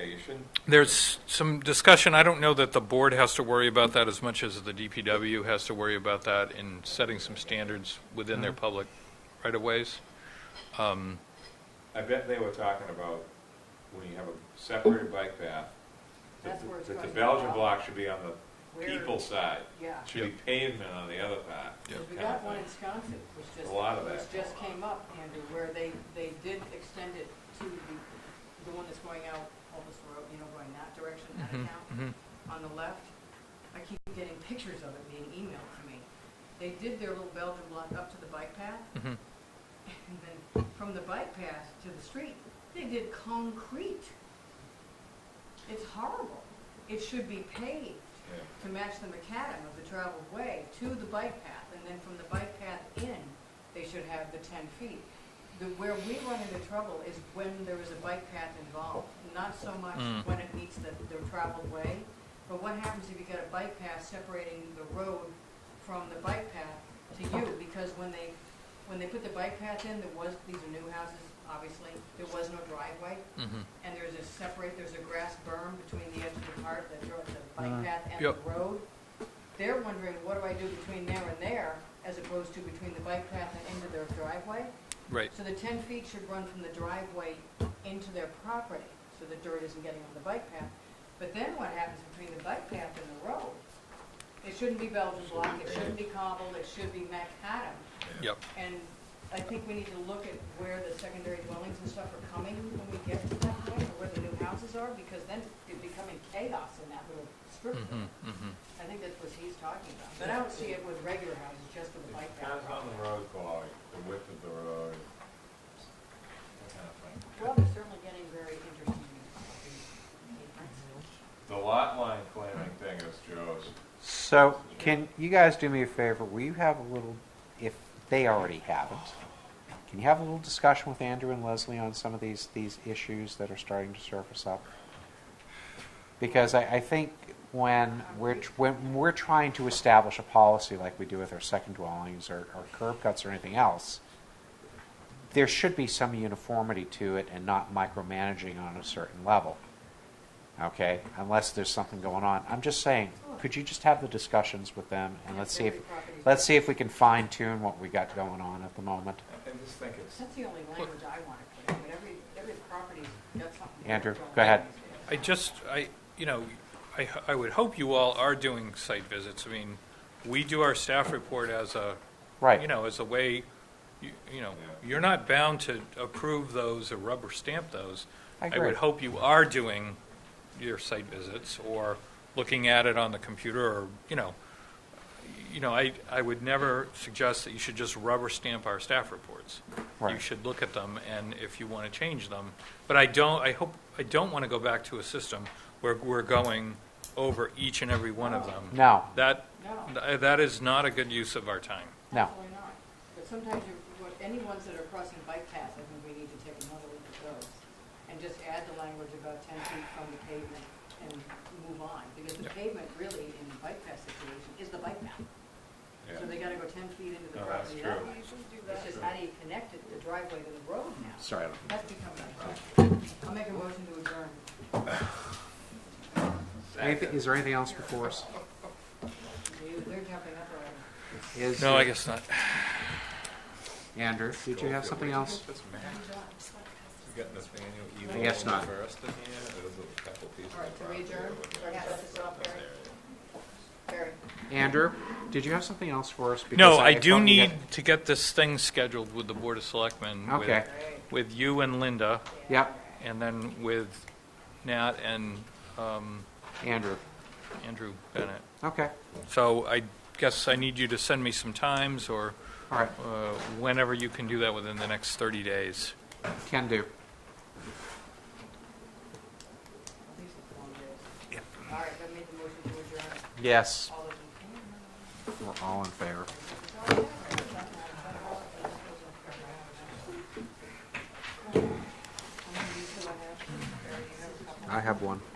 discussion? There's some discussion, I don't know that the board has to worry about that as much as the DPW has to worry about that in setting some standards within their public right-of-ways. Um, I bet they were talking about when you have a separated bike path, that That's where it's that the going. Belgian block should be on the Where- people side. Yeah. Should be pavement on the other path. Yeah. Because we kind of got one in thing. Wisconsin, which just, A lot of that. which just came up, Andrew, where they, they did extend it to the, the one that's going out Olmsted Road, you know, going that direction, out of mhm, town, mhm. on the left. I keep getting pictures of it being emailed to me. They did their little Belgian block up to the bike path, Mhm. and then from the bike path to the street, they did concrete. It's horrible. It should be paved Yeah. to match the macadam of the traveled way to the bike path, and then from the bike path in, they should have the ten feet. The, where we run into trouble is when there is a bike path involved, not so much Mm. when it meets the, the traveled way, but what happens if you got a bike path separating the road from the bike path to you? Because when they, when they put the bike path in, there was, these are new houses, obviously, there was no driveway, Mhm. and there's a separate, there's a grass berm between the edge of the park, the, dro- the bike Mm. path and Yep. the road. They're wondering, what do I do between there and there, as opposed to between the bike path and into their driveway? Right, So the ten feet should run from the driveway into their property, so the dirt isn't getting on the bike path. But then what happens between the bike path and the road? It shouldn't be Belgian block, it shouldn't be cobbled, it should be macadam. yep. And I think we need to look at where the secondary dwellings and stuff are coming when we get to that point, or where the new houses are, because then it's becoming chaos in that little strip. Mm-hmm. Mhm, mhm. I think that's what he's talking about, but I don't see it with regular houses, just with the bike It path. Depends on the road quality, the width of the road, that kind of thing. Well, it's certainly getting very interesting. The lot line claiming thing is Joe's. So, can you guys do me a favor? Will you have a little, if they already haven't, can you have a little discussion with Andrew and Leslie on some of these, these issues that are starting to surface up? Because I, I think when we're, tr- when we're trying to establish a policy like we do with our second dwellings or, or curb cuts or anything else, there should be some uniformity to it and not micromanaging on a certain level. Okay, unless there's something going on. I'm just saying, could you just have the discussions with them and let's see if, let's see if we can fine tune what we got going on at the moment. I I just think it's, That's the only language I want to put in, but every, every property's got something. Andrew, different go ahead. these days. I just, I, you know, I, I would hope you all are doing site visits. I mean, we do our staff report as a, Right. you know, as a way, you you know, Yeah. you're not bound to approve those or rubber stamp those. I would agree. hope you are doing your site visits or looking at it on the computer or, you know, you know, I, I would never suggest that you should just rubber stamp our staff reports. You Right. should look at them and if you want to change them. But I don't, I hope, I don't want to go back to a system where we're going over each and every one of them. No, That, No. th- that is not a good use of our time. No. Absolutely not. But sometimes you, what- any ones that are crossing bike paths, I think we need to take another look at those and just add the language about ten feet from the pavement and move on. Because the Yep. pavement really in the bike path situation is the bike path. yeah. So they gotta go ten feet into the No, that's property. true. that way. It's just how do you connect it, the driveway to the road now? sorry. I don't- That's becoming a problem. I'll make a motion to adjourn. Anything, is there anything else before us? We- We're jumping up already. Is No, I guess not. Andrew, did you have something else? This map, we got Nathaniel I Eagle guess on not. the first in here, there's a couple pieces All right, of so we property. adjourn, start to set this off, Barry. Barry. Andrew, did you have something else for us? No, Because I do thought we need had- to get this thing scheduled with the Board of Selectmen. with- Okay. Great. With you and Linda, Yep, and then with Nat and um, Andrew. Andrew Bennett. Okay, So I guess I need you to send me some times, or all right, uh, whenever you can do that within the next 30 days. can do. These are long days. All right, I made the motion to adjourn. Yes, All those in favor? we're all in favor. I'm gonna use what I have. Barry, you have a couple? I have one.